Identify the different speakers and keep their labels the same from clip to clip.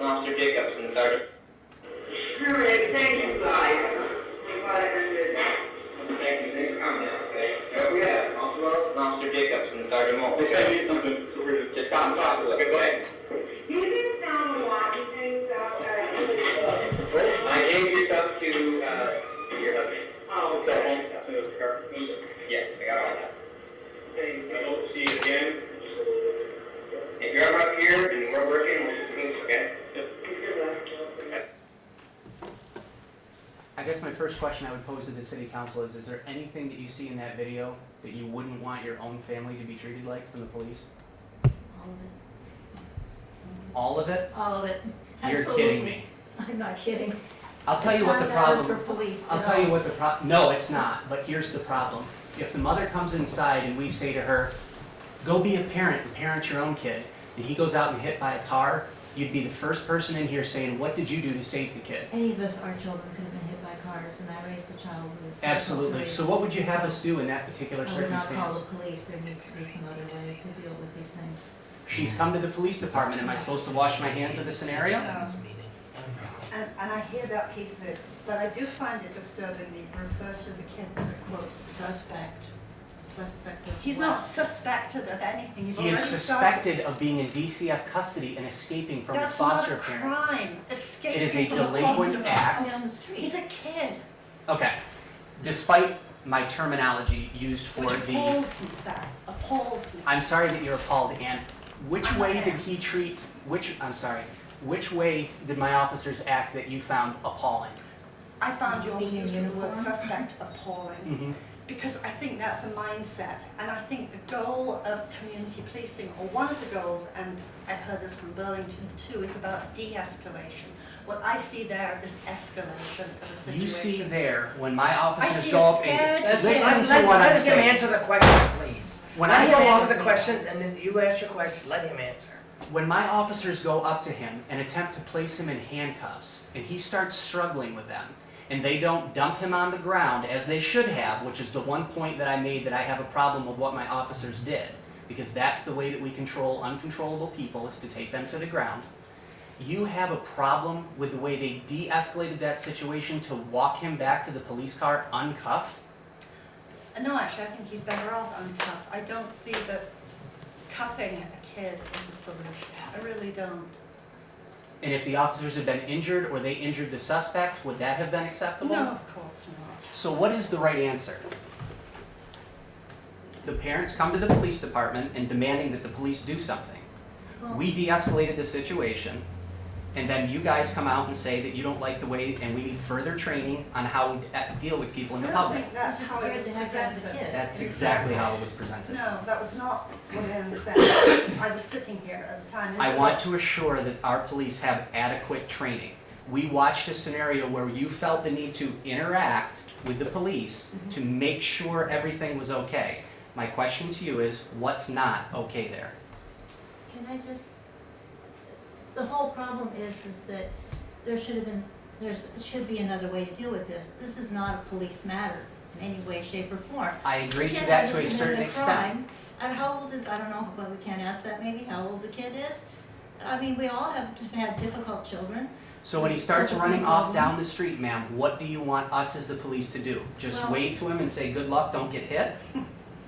Speaker 1: Officer Jacobson, Sergeant.
Speaker 2: All right, thank you guys. We got it under
Speaker 1: Thank you, thanks for coming down, okay? we have? Officer Jacobson, Sergeant Moore.
Speaker 3: Okay, I need something, so we're
Speaker 1: Just come talk to us.
Speaker 2: You didn't sound a lot, you think, uh,
Speaker 1: I gave your stuff to, uh, your husband.
Speaker 2: oh, okay.
Speaker 1: Yes, I got all that.
Speaker 3: I don't see it again.
Speaker 1: If you're ever up here and we're working, we'll just move, okay?
Speaker 4: I guess my first question I would pose to the city council is, is there anything that you see in that video that you wouldn't want your own family to be treated like from the police?
Speaker 5: All of it.
Speaker 4: All of it?
Speaker 5: All of it.
Speaker 4: You're
Speaker 5: Absolutely.
Speaker 4: kidding me.
Speaker 5: I'm not kidding.
Speaker 4: I'll tell you what the
Speaker 5: It's not valid
Speaker 4: problem,
Speaker 5: for police.
Speaker 4: I'll
Speaker 5: at
Speaker 4: tell you
Speaker 5: all.
Speaker 4: what the pro, no, it's not, but here's the problem. If the mother comes inside and we say to her, go be a parent and parent your own kid, and he goes out and hit by a car, you'd be the first person in here saying, what did you do to save the kid?
Speaker 5: Any of us, our children could have been hit by cars, and I raised a child who was.
Speaker 4: Absolutely. So what would you have us do in that particular
Speaker 5: I would not call
Speaker 4: circumstance?
Speaker 5: the police. There needs to be some other way to deal with these things.
Speaker 4: She's come to the police department, am I supposed to wash my hands of the scenario?
Speaker 6: And, and I hear that piece of it, but I do find it disturbing that you refer to the kid as a quote suspect. Suspect of
Speaker 7: He's
Speaker 6: what?
Speaker 7: not suspected of anything. You've
Speaker 4: He is
Speaker 7: already started.
Speaker 4: suspected of being in DCF custody and escaping from his
Speaker 7: That's not
Speaker 4: foster
Speaker 7: a
Speaker 4: parent.
Speaker 7: crime. Escape
Speaker 4: It is a
Speaker 7: from the
Speaker 4: delinquent
Speaker 7: foster.
Speaker 4: act.
Speaker 5: On the street.
Speaker 7: He's a kid,
Speaker 4: Okay, despite my terminology used for
Speaker 7: which
Speaker 4: the,
Speaker 7: appalls me, sir. Appalls me.
Speaker 4: I'm sorry that you're appalled, Ann. Which
Speaker 7: I'm
Speaker 4: way
Speaker 7: not
Speaker 4: did
Speaker 7: Ann.
Speaker 4: he treat, which, I'm sorry, which way did my officers act that you found appalling?
Speaker 7: I found your
Speaker 6: Being
Speaker 7: use
Speaker 6: in
Speaker 7: of the word
Speaker 6: uniform.
Speaker 7: suspect appalling
Speaker 4: Mhm.
Speaker 7: because I think that's a mindset, and I think the goal of community policing, or one of the goals, and I've heard this from Burlington too, is about de-escalation. What I see there is escalation of a situation.
Speaker 4: You see there, when my
Speaker 7: see
Speaker 4: officers
Speaker 7: a
Speaker 4: go up
Speaker 7: scared-
Speaker 4: and,
Speaker 7: That's-
Speaker 4: listen
Speaker 8: Let-
Speaker 4: to
Speaker 8: let-
Speaker 4: what I'm
Speaker 8: Let him
Speaker 4: saying.
Speaker 8: answer the question, please.
Speaker 4: When I
Speaker 8: Let him
Speaker 4: go
Speaker 8: answer
Speaker 4: up,
Speaker 8: the question, and then you ask your question, let him answer.
Speaker 4: when my officers go up to him and attempt to place him in handcuffs, and he starts struggling with them, and they don't dump him on the ground as they should have, which is the one point that I made that I have a problem with what my officers did, because that's the way that we control uncontrollable people is to take them to the ground. You have a problem with the way they de-escalated that situation to walk him back to the police car uncuffed?
Speaker 7: Uh, No, actually, I think he's better off uncuffed. I don't see that cuffing a kid is a solution. I really don't.
Speaker 4: And if the officers had been injured or they injured the suspect, would that have been acceptable?
Speaker 7: No, of course not.
Speaker 4: So what is the right answer? The parents come to the police department and demanding that the police do something.
Speaker 5: Well-
Speaker 4: We de-escalated the situation, and then you guys come out and say that you don't like the way, and we need further training on how we uh, deal with people in the
Speaker 7: I don't
Speaker 4: public.
Speaker 7: think
Speaker 5: I was
Speaker 7: that's
Speaker 5: just
Speaker 7: how it
Speaker 5: scared
Speaker 7: was
Speaker 5: to have to have the
Speaker 7: presented.
Speaker 5: kid.
Speaker 4: That's exactly how it was presented.
Speaker 7: No, that was not what Anne said. I was sitting here at the time.
Speaker 4: I want to assure that our police have adequate training. We watched a scenario where you felt the need to interact with the police
Speaker 8: Mm-hmm.
Speaker 4: to make sure everything was okay. My question to you is, what's not okay there?
Speaker 5: Can I just, the whole problem is, is that there should have been, there's, should be another way to deal with this. This is not a police matter in any way, shape, or form.
Speaker 4: I agree to
Speaker 5: Kid
Speaker 4: that
Speaker 5: hasn't
Speaker 4: to a
Speaker 5: committed
Speaker 4: certain
Speaker 5: a
Speaker 4: extent.
Speaker 5: crime. And how old is, I don't know, but we can't ask that maybe, how old the kid is. I mean, we all have had difficult children.
Speaker 4: So when he
Speaker 5: Does-
Speaker 4: starts
Speaker 5: doesn't
Speaker 4: running
Speaker 5: mean
Speaker 4: off down
Speaker 5: violence.
Speaker 4: the street, ma'am, what do you want us as the police to do? Just
Speaker 5: Well-
Speaker 4: wave to him and say, good luck, don't get hit?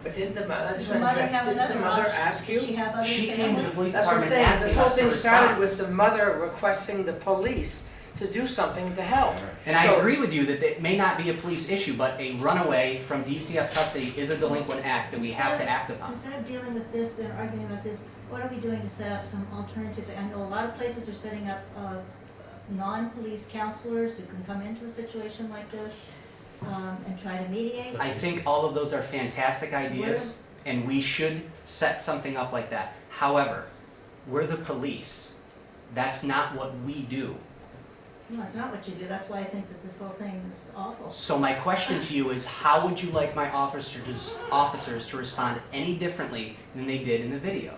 Speaker 8: But did the mother,
Speaker 5: Does the mother have
Speaker 8: did the
Speaker 5: another
Speaker 8: mother
Speaker 5: option?
Speaker 8: ask
Speaker 5: Does she
Speaker 8: you?
Speaker 5: have other
Speaker 4: She came to the
Speaker 5: family?
Speaker 4: police
Speaker 8: That's what I'm
Speaker 4: department
Speaker 8: saying, this
Speaker 4: asking
Speaker 8: whole
Speaker 4: us to
Speaker 8: thing started
Speaker 4: respond.
Speaker 8: with the mother requesting the police to do something to help.
Speaker 4: And I
Speaker 8: So-
Speaker 4: agree with you that it may not be a police issue, but a runaway from DCF custody is a delinquent act that we have to act upon.
Speaker 5: Instead of dealing with this, then arguing about this, what are we doing to set up some alternative? I know a lot of places are setting up, uh, non-police counselors who can come into a situation like this, um, and try to mediate.
Speaker 4: I think all of those are fantastic ideas, and we should set something up like that. However, we're the police. That's not what we do.
Speaker 5: No, it's not what you do, that's why I think that this whole thing is awful.
Speaker 4: So my question to you is, how would you like my officers, officers to respond any differently than they did in the video?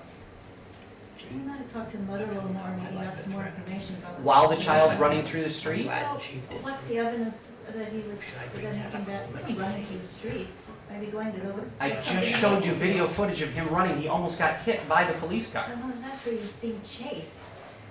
Speaker 5: We might have talked to the mother a little more, maybe got some more information about. what-
Speaker 4: While the child's running through the street?
Speaker 8: Glad that she did.
Speaker 5: What's the evidence that he was,
Speaker 8: Should I
Speaker 5: that
Speaker 8: bring that
Speaker 5: anything
Speaker 8: up a
Speaker 5: that
Speaker 8: little bit?
Speaker 5: running through the streets, maybe going to the.
Speaker 4: I just showed you video footage of him running. He almost got hit by the police car.
Speaker 5: I know, that's where he's being chased.